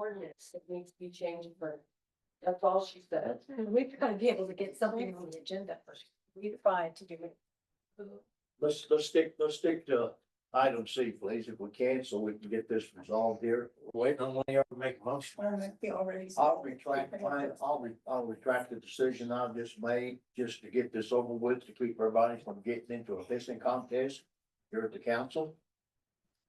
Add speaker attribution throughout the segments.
Speaker 1: ordinance that needs to be changed for, that's all she said.
Speaker 2: We've got to be able to get something on the agenda for you to find to do it.
Speaker 3: Let's, let's stick, let's stick to item C, please, if we can, so we can get this resolved here.
Speaker 4: Wait, on one of y'all to make a motion.
Speaker 2: We already.
Speaker 3: I'll retract, mine. I'll, re- I'll retract the decision I've just made, just to get this over with, to keep everybody from getting into a pissing contest here at the council.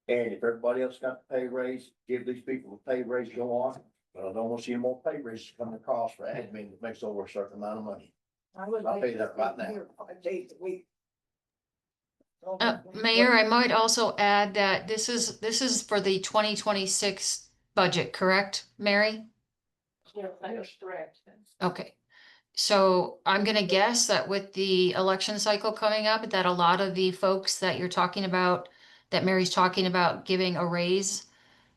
Speaker 3: And if everybody else got a pay raise, give these people a pay raise, go on, but I don't want to see more pay raises coming across for admin that makes over a certain amount of money.
Speaker 2: I would
Speaker 3: I'll
Speaker 2: like
Speaker 3: pay
Speaker 2: to
Speaker 3: that right
Speaker 2: stay
Speaker 3: now.
Speaker 2: here Five days a week.
Speaker 5: Uh, Mayor, I might also add that this is, this is for the twenty twenty-six budget, correct, Mary?
Speaker 1: Yeah, that's correct.
Speaker 5: Okay. So I'm gonna guess that with the election cycle coming up, that a lot of the folks that you're talking about, that Mary's talking about giving a raise,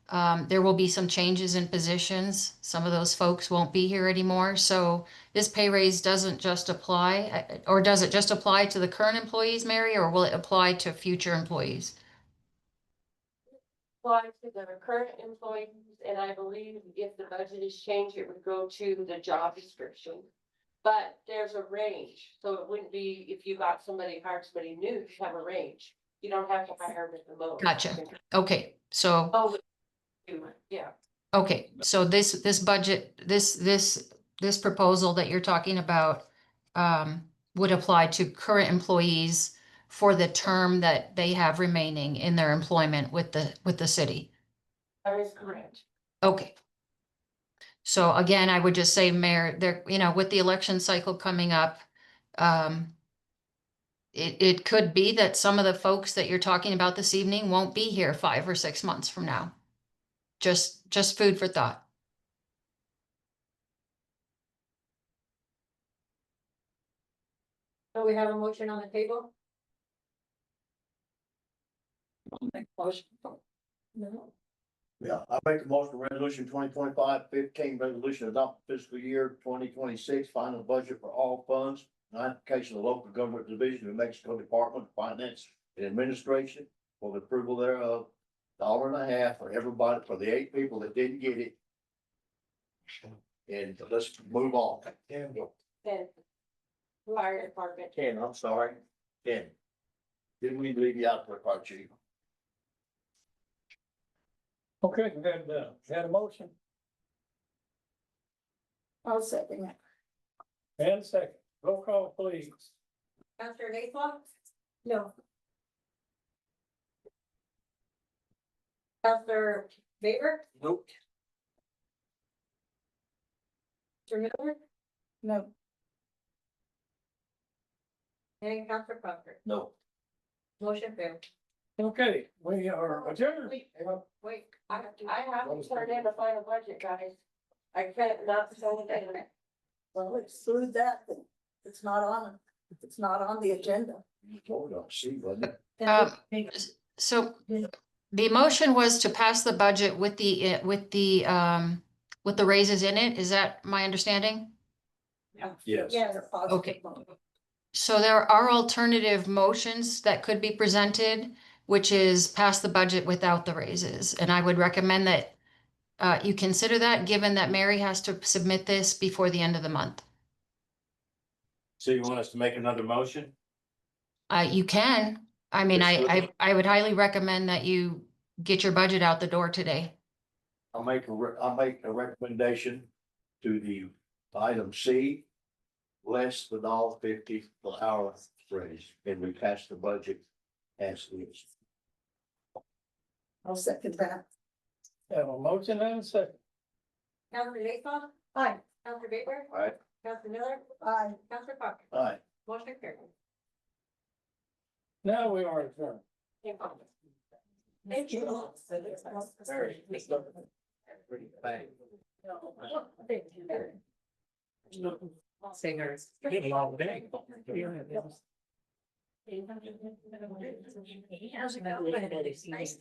Speaker 5: um, there will be some changes in positions. Some of those folks won't be here anymore. So this pay raise doesn't just apply, uh, or does it just apply to the current employees, Mary, or will it apply to future employees?
Speaker 1: Apply to the current employees, and I believe if the budget is changed, it would go to the job description. But there's a range, so it wouldn't be if you got somebody, hired somebody new, you have a range. You don't have to hire them at the moment.
Speaker 5: Gotcha. Okay, so.
Speaker 1: Oh, yeah.
Speaker 5: Okay, so this, this budget, this, this, this proposal that you're talking about um, would apply to current employees for the term that they have remaining in their employment with the, with the city.
Speaker 1: That is correct.
Speaker 5: Okay. So again, I would just say, Mayor, there, you know, with the election cycle coming up, um, it, it could be that some of the folks that you're talking about this evening won't be here five or six months from now. Just, just food for thought.
Speaker 2: So we have a motion on the table? Motion. No.
Speaker 3: Yeah, I make the motion for resolution 2025-15, resolution adopt fiscal year twenty twenty-six, final budget for all funds. Notification of local government division of Mexico Department of Finance and Administration for the approval thereof. Dollar and a half for everybody, for the eight people that didn't get it. And let's move on. Ten.
Speaker 1: Then fire department,
Speaker 3: Ten, I'm sorry, ten. Didn't we leave you out for part two?
Speaker 4: Okay, we had, uh, had a motion
Speaker 2: I'll second that.
Speaker 4: and a second. Roll call, please.
Speaker 2: After Lakeland? No. After Baker?
Speaker 4: Nope.
Speaker 2: Mr. Miller? No. And Counselor Parker,
Speaker 3: No.
Speaker 2: motion failed.
Speaker 4: Okay, we are adjourned.
Speaker 1: Wait, wait, I, have to- I have to turn in the final budget, guys. I can't not send it in.
Speaker 6: Well, exclude that, then it's not on, it's not on the agenda.
Speaker 3: You told us, see, wasn't it?
Speaker 5: Um, s- So the motion was to pass the budget with the, uh, with the, um, with the raises in it. Is that my understanding?
Speaker 3: Yes.
Speaker 6: Yes.
Speaker 5: Okay. So there are alternative motions that could be presented, which is pass the budget without the raises. And I would recommend that uh, you consider that, given that Mary has to submit this before the end of the month.
Speaker 4: So you want us to make another motion?
Speaker 5: Uh, you can, I mean, I, I, I would highly recommend that you get your budget out the door today.
Speaker 3: I'll make a, re- I'll make a recommendation to the item C. Less the dollar fifty per hour raise, and we pass the budget as is.
Speaker 6: I'll second that.
Speaker 4: Have a motion and a second.
Speaker 2: Counselor Lakeland? Aye. Counselor Baker?
Speaker 3: Aye.
Speaker 2: Counselor Miller?
Speaker 6: Aye.
Speaker 2: Counselor Parker,
Speaker 3: All right,
Speaker 2: motion carried.
Speaker 4: Now we are adjourned.
Speaker 1: Thank you.
Speaker 3: Very good. pretty bang.
Speaker 1: Singers.
Speaker 2: How's it going? Nice